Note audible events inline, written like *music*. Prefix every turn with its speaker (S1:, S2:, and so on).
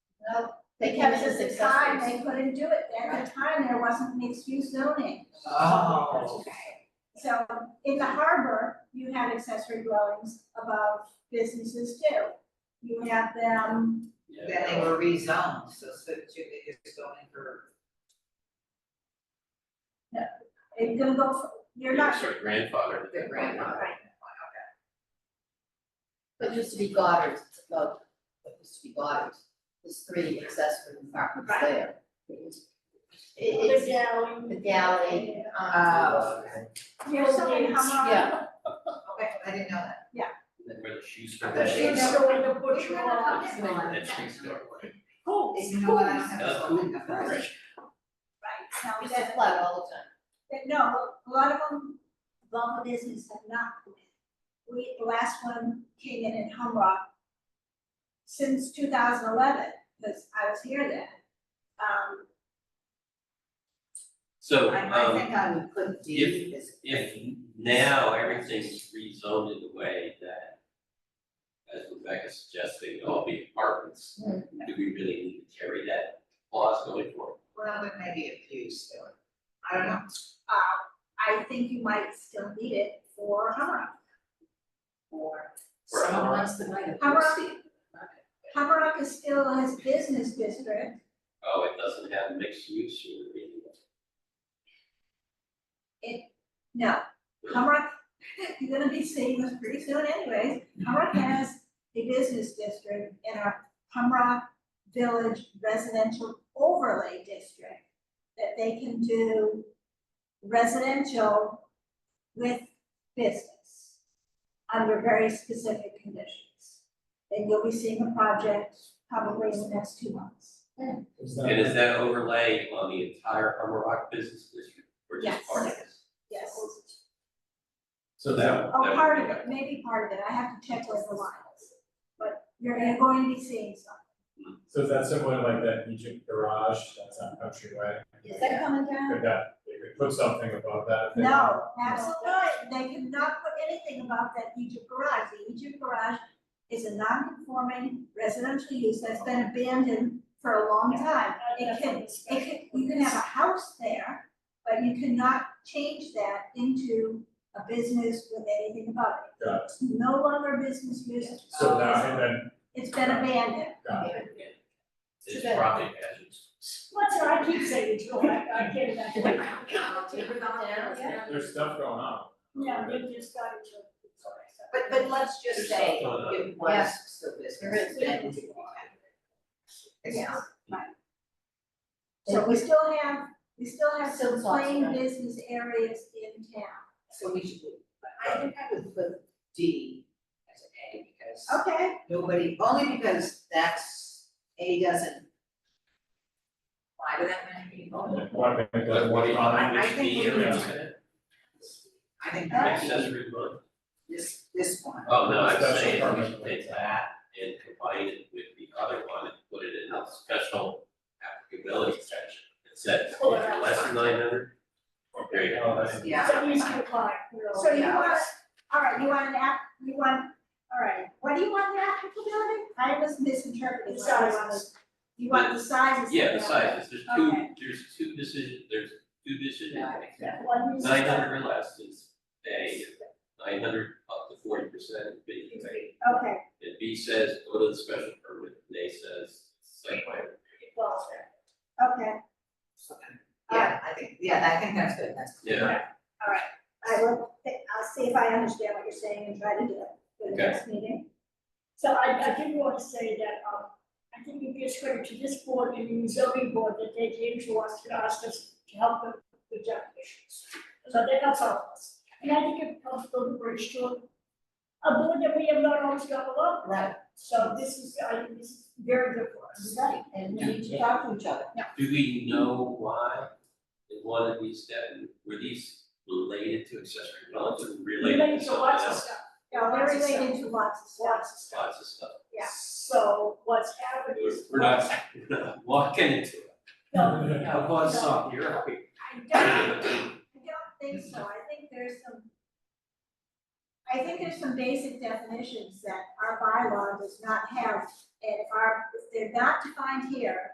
S1: They kept us
S2: Because at the
S1: successful.
S2: time, they couldn't do it, at the time, there wasn't mixed use zoning.
S3: Oh.
S2: So in the harbor, you had accessory dwellings above businesses too. You have them,
S3: Yeah.
S4: Then they were rezoned, so, so they just going for,
S2: it's gonna go, for- you're not
S3: Sort of grandfather.
S4: Their grandfather.
S2: Right.
S1: But it used to be Goddard's, well, it used to be Goddard's, there's three accessory apartments
S2: Right.
S1: there. It-
S2: the
S1: It's
S2: galley.
S1: the galley, um,
S4: oh, okay,
S2: There's so many,
S1: Yeah.
S4: Okay, I didn't know that.
S3: Then where the shoe store.
S4: The
S3: was.
S4: shoe
S2: store, the butcher,
S4: You're
S2: all
S4: gonna
S2: that.
S4: come in.
S3: That shoe store.
S2: Cool.
S4: You know what, I don't have
S3: Uh,
S4: a
S3: cool.
S4: zoning
S2: Right,
S4: authority.
S2: so
S1: used to
S2: that,
S1: Um, flood all the time.
S2: that- no, a lot of them, Bumble Business have not come in. We, the last one came in in Humrock since two thousand eleven, because I was here then. Um,
S4: I,
S5: So,
S4: I
S5: um,
S4: think I would put D
S5: if-
S4: as.
S5: if now everything's rezoned in the way that, as Rebecca suggested, they all be apartments,
S4: Hmm.
S5: do we really need to carry that clause going forward?
S4: Well, there may be a few still, I don't know.
S2: uh, I think you might still need it for Humrock.
S4: Or.
S5: For
S4: Someone
S5: our-
S4: wants to buy the
S2: How about-
S4: proceed.
S2: Humrock is still his business district,
S5: Oh, it doesn't have mixed use or anything.
S2: no, Humrock, *laughs* you're gonna be seeing this pretty soon anyways. Humrock has a business district in our Humrock Village Residential Overlay District that they can do residential with business under very specific conditions. And you'll be seeing a project probably in the next two months.
S5: And is that overlay on the entire Hummer Rock business district or
S2: Yes.
S5: just part of it?
S2: Yes.
S3: So that,
S2: Oh, part of it, maybe part of it, I have to check with the lines, but you're gonna- going to be seeing some.
S6: So is that similar to like that Egypt garage that's on Countryway?
S1: Is that coming down?
S6: Could that, they could put something above that? if they want.
S2: No, absolutely, they cannot put anything about that Egypt garage, the Egypt garage is a non-conforming residential use that's been abandoned for a long time. It can, it can, you can have a house there, but you cannot change that into a business with anything about it.
S6: Got
S2: It's no longer a business use,
S6: So now, and then,
S2: it's been abandoned.
S6: got it.
S5: It's
S1: that-
S5: probably hazardous.
S7: What's it, I keep saying it's all right, I can't imagine.
S1: I'll take it down, yeah.
S6: there's stuff going on.
S7: Yeah, they just got it. to- it's all right, so.
S4: But, but let's just
S5: There's
S4: say
S5: stuff going on.
S4: it was still business.
S1: There is.
S4: then- It's-
S2: Yeah. So we still have, we still have
S1: Still
S2: some
S1: lots of
S2: plain
S1: money.
S2: business areas in town.
S4: So we should, I think I would put D as an A because.
S2: Okay.
S4: Nobody, only because that's, A doesn't. Why do that many people?
S6: One thing that
S5: But what do you,
S6: on *laughs*
S4: I- I
S5: which
S4: think
S5: the
S4: we
S5: area
S6: need
S4: I think that would be
S5: accessory dwelling?
S4: this, this one.
S5: Oh, no, I'm
S6: Special
S5: saying we
S6: permit.
S5: should take that and combine it with the other one and put it in a special applicability section. It says, if you're less than nine hundred, or there you go.
S4: Yeah.
S7: So you should apply, you know.
S2: So you
S4: yeah.
S2: want, all right, you want an app, you want, all right, what do you want the applicability? I was misinterpreting.
S7: The
S2: what I wanted.
S7: sizes.
S2: You want the sizes.
S5: Yeah, the sizes, there's two,
S2: Okay.
S5: there's two decision, there's two decision makers.
S7: One is-
S5: Nine hundred or less is A, nine hundred up to forty percent is B.
S2: Okay,
S5: And B says, go to the special permit, and A says, site plan.
S7: Well,
S2: okay,
S4: Yeah, I think, yeah, I think that's good, that's.
S5: Yeah.
S2: all right. I will, thi- I'll see if I understand what you're saying and try to do it for the
S5: Okay.
S2: next meeting.
S7: So I, I did want to say that, um, I think it gives credit to this board and the zoning board that they came to us to ask us to help them with job issues. So they helped all of us. And I think it helps build a bridge to a board that we have not always got along.
S4: Right.
S7: So this is, I think this is very good for us.
S4: Right, and we need to talk to each other.
S5: Do we know why in one of these that, were these related to accessory dwellings or related to
S7: Related to
S5: something
S7: lots of
S5: else?
S7: stuff,
S2: No, they're related to lots of stuff.
S7: lots of stuff.
S5: Lots of stuff.
S2: Yeah.
S7: So what's happened
S5: We're,
S7: is.
S5: we're not, *laughs* we're not walking into it.
S7: No,
S5: Now, what's up, you're up here.
S2: I don't,
S7: *laughs*
S2: I don't think so, I think there's some. I think there's some basic definitions that our bylaw does not have, and if our, if they're not defined here,